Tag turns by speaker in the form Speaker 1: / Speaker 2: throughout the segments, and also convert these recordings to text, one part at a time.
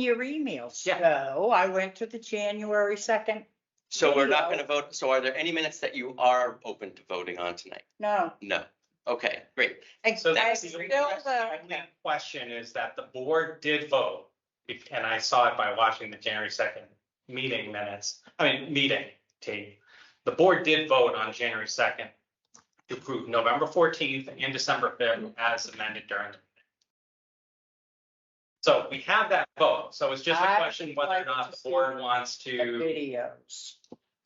Speaker 1: your emails.
Speaker 2: Yeah.
Speaker 1: So I went to the January second,
Speaker 2: So we're not
Speaker 1: There you
Speaker 2: gonna vote, so are there any minutes that you are open to voting on tonight?
Speaker 1: no.
Speaker 2: No, okay, great,
Speaker 1: I-
Speaker 3: So
Speaker 1: I
Speaker 3: that's the
Speaker 1: still
Speaker 3: only
Speaker 1: don't
Speaker 3: question- only question is that the board did vote, if- and I saw it by watching the January second meeting minutes, I mean, meeting tape. The board did vote on January second to approve November fourteenth and December fifth as amended during. the meeting. So we have that vote, so it's just a
Speaker 1: I
Speaker 3: question whether or
Speaker 1: like
Speaker 3: not
Speaker 1: to
Speaker 3: the board
Speaker 1: see
Speaker 3: wants
Speaker 1: the
Speaker 3: to,
Speaker 1: Videos.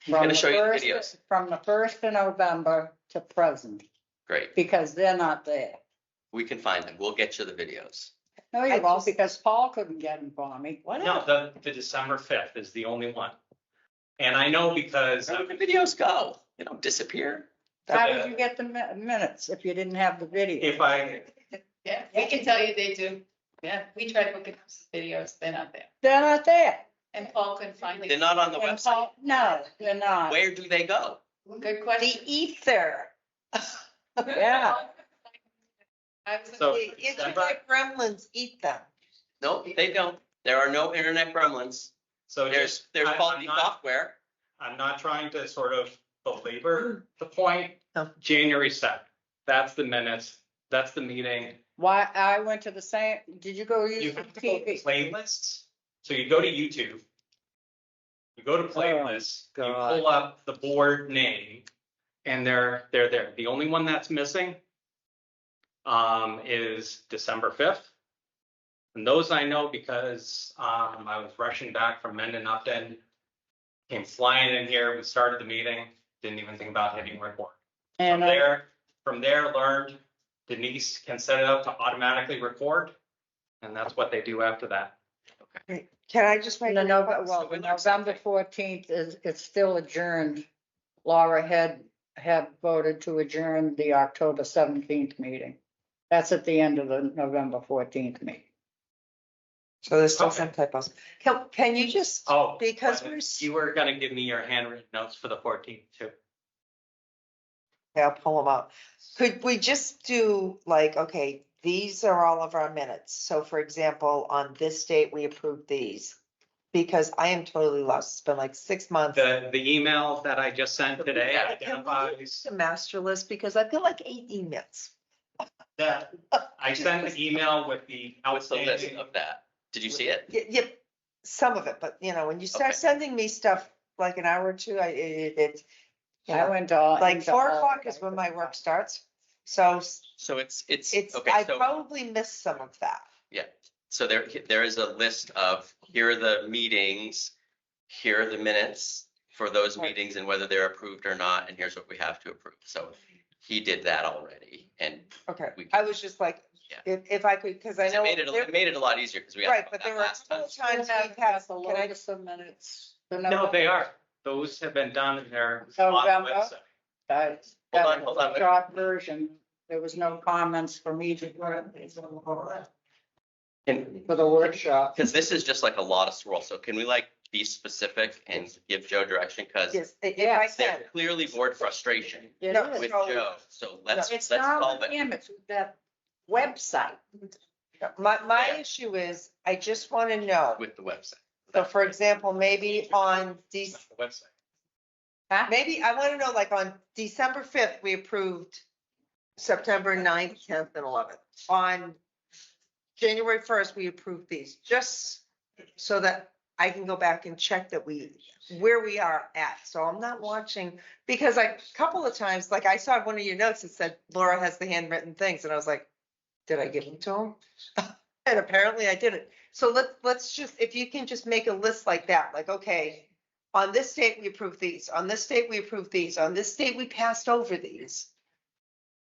Speaker 2: He's gonna
Speaker 1: From the
Speaker 2: show you the
Speaker 1: first-
Speaker 2: videos.
Speaker 1: From the first of November to present,
Speaker 2: great.
Speaker 1: because they're not there.
Speaker 2: We can find them. We'll get you the videos.
Speaker 1: No,
Speaker 4: I
Speaker 1: you won't,
Speaker 4: just-
Speaker 1: because Paul couldn't get them for me.
Speaker 3: no, the, the December fifth is the only one. And I know because.
Speaker 2: Where do the videos go? They don't disappear.
Speaker 1: How
Speaker 3: Uh,
Speaker 1: did you get the mi- minutes if you didn't have the video?
Speaker 3: If I,
Speaker 4: Yeah, we can tell you they do. Yeah, we tried to look at some videos, they're not there.
Speaker 1: They're not there.
Speaker 4: And Paul couldn't find
Speaker 2: They're
Speaker 4: it.
Speaker 2: not on the
Speaker 1: And
Speaker 2: website.
Speaker 1: Paul- No, they're not.
Speaker 2: Where do they go?
Speaker 4: Good
Speaker 1: The
Speaker 4: question.
Speaker 1: ether. Yeah.
Speaker 4: I was.
Speaker 3: So-
Speaker 4: looking-
Speaker 3: December-
Speaker 1: gremlins eat them.
Speaker 2: No, they don't. There are no internet gremlins.
Speaker 3: so just.
Speaker 2: There's, there's
Speaker 3: I- I'm
Speaker 2: faulty
Speaker 3: not-
Speaker 2: software.
Speaker 3: I'm not trying to sort of belabor the point. January seventh, that's the minutes, that's the meeting.
Speaker 1: Why, I went to the same, did you go
Speaker 3: You
Speaker 1: use the
Speaker 3: have to go to
Speaker 1: TV?
Speaker 3: playlists, so you go to YouTube. You go to playlists, you
Speaker 1: God.
Speaker 3: pull up the board name, and they're, they're there. The only one that's missing um, is December fifth. And those I know because um, I was rushing back from Mendon Upton. Came flying in here, we started the meeting, didn't even think about hitting record. From
Speaker 1: And I-
Speaker 3: there, from there, learned Denise can set it up to automatically record. And that's what they do after that.
Speaker 5: Can I just make?
Speaker 1: no,
Speaker 5: a-
Speaker 1: no, but- well,
Speaker 2: we learned
Speaker 1: November fourteenth is, it's still adjourned. Laura had, had voted to adjourn the October seventeenth meeting. That's at the end of the November fourteenth meeting.
Speaker 5: So there's still
Speaker 3: Okay.
Speaker 5: some typos. Can, can you just,
Speaker 3: Oh.
Speaker 5: because
Speaker 3: but
Speaker 5: we're,
Speaker 3: You were gonna give me your handwritten notes for the fourteenth too.
Speaker 5: yeah, pull them up. Could we just do like, okay, these are all of our minutes. So for example, on this date, we approved these. Because I am totally lost. It's been like six months.
Speaker 3: The, the email that I just sent today
Speaker 5: Can we use
Speaker 3: identifies
Speaker 5: The master list, because I feel like eight emails.
Speaker 3: that
Speaker 5: Uh,
Speaker 3: I sent an email with the
Speaker 2: What's the list
Speaker 3: outstanding.
Speaker 2: of that? Did you see it?
Speaker 5: Y- Yep, some of it, but you know, when you start
Speaker 2: Okay.
Speaker 5: sending me stuff like an hour or two, I, it, it's. you
Speaker 1: I
Speaker 5: know,
Speaker 1: went all.
Speaker 5: Like
Speaker 1: into
Speaker 5: four
Speaker 1: all-
Speaker 5: o'clock is when my work starts. So
Speaker 2: So it's, it's,
Speaker 5: It's,
Speaker 2: okay,
Speaker 5: I
Speaker 2: so,
Speaker 5: probably missed some of that.
Speaker 2: so there, there is a list of, here are the meetings, here are the minutes for those
Speaker 1: Right.
Speaker 2: meetings and whether they're approved or not, and here's what we have to approve. So he did that already, and
Speaker 5: Okay,
Speaker 2: We can-
Speaker 5: I was just like,
Speaker 2: Yeah.
Speaker 5: if, if I could, because I
Speaker 2: it
Speaker 5: know.
Speaker 2: made it, a-
Speaker 5: there-
Speaker 2: it made it a lot easier because we. asked
Speaker 5: Right,
Speaker 2: about
Speaker 5: but
Speaker 2: that
Speaker 5: there were a
Speaker 2: last time.
Speaker 5: couple of times
Speaker 1: Still
Speaker 5: we
Speaker 1: haven't got
Speaker 5: passed,
Speaker 1: the
Speaker 5: can I
Speaker 1: longest of minutes. The
Speaker 3: No, they
Speaker 1: November-
Speaker 3: are. Those have been done and they're
Speaker 5: Oh,
Speaker 3: on the
Speaker 1: November.
Speaker 3: website.
Speaker 1: That
Speaker 2: Hold
Speaker 1: that
Speaker 2: on,
Speaker 1: was
Speaker 2: hold on.
Speaker 1: a short version. There was no comments for me to, for
Speaker 2: And-
Speaker 1: the workshop.
Speaker 2: Because this is just like a lot of swirl, so can we like be specific and give Joe direction? Because
Speaker 5: yes, i- if I
Speaker 1: Yes.
Speaker 5: can.
Speaker 2: they're clearly board frustration
Speaker 1: It
Speaker 5: No,
Speaker 1: is.
Speaker 2: with
Speaker 5: So-
Speaker 2: Joe, so let's, let's
Speaker 1: It's not
Speaker 2: solve
Speaker 1: with
Speaker 2: it.
Speaker 1: him, it's with that website.
Speaker 5: My, my
Speaker 2: There.
Speaker 5: issue is, I just want to know,
Speaker 2: With the website.
Speaker 5: so for example, maybe on these,
Speaker 3: It's on the website.
Speaker 1: Huh?
Speaker 5: maybe I want to know, like on December fifth, we approved September 9th, tenth and eleventh. On January first, we approved these, just so that I can go back and check that we, where we are at. So I'm not watching, because like a couple of times, like I saw one of your notes that said Laura has the handwritten things, and I was like, did I give them to him? And apparently I didn't. So let, let's just, if you can just make a list like that, like, okay, on this date, we approved these, on this date, we approved these, on this date, we passed over these.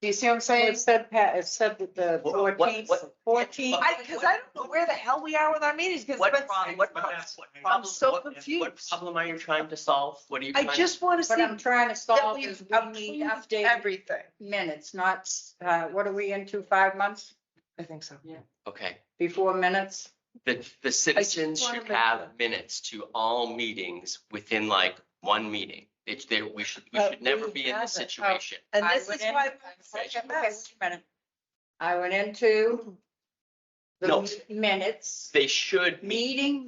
Speaker 5: Do you see what I'm saying?
Speaker 1: It said, pa- it said that the
Speaker 2: What- what-
Speaker 1: fourteenth,
Speaker 2: what-
Speaker 1: fourteenth.
Speaker 2: what-
Speaker 5: I, because I don't know where the hell we are with our meetings, because
Speaker 2: What
Speaker 5: it's
Speaker 2: problem,
Speaker 5: been.
Speaker 2: what
Speaker 3: But
Speaker 2: problem?
Speaker 3: that's what I-
Speaker 5: I'm so
Speaker 2: what- What
Speaker 5: confused.
Speaker 2: problem are you trying to solve? What are you?
Speaker 5: I
Speaker 2: trying-
Speaker 5: just want to see
Speaker 1: What I'm
Speaker 5: that
Speaker 1: trying to solve
Speaker 5: we've
Speaker 1: is we need
Speaker 5: approved
Speaker 1: updated
Speaker 5: everything.
Speaker 1: minutes, not, uh, what are we into, five months
Speaker 5: I think so.
Speaker 2: Okay,
Speaker 1: before minutes?
Speaker 2: the, the citizens
Speaker 5: wanna
Speaker 2: should
Speaker 5: make
Speaker 2: have minutes to all meetings within like one meeting. It's there, we should, we
Speaker 1: But
Speaker 2: should never
Speaker 1: we
Speaker 2: be in this
Speaker 1: haven't. Oh.
Speaker 2: situation.
Speaker 5: And
Speaker 1: I
Speaker 5: this
Speaker 1: went
Speaker 5: is
Speaker 1: in-
Speaker 5: why.
Speaker 1: Okay, wait a minute. I went into No.
Speaker 2: the minutes,
Speaker 1: They should meet
Speaker 2: meeting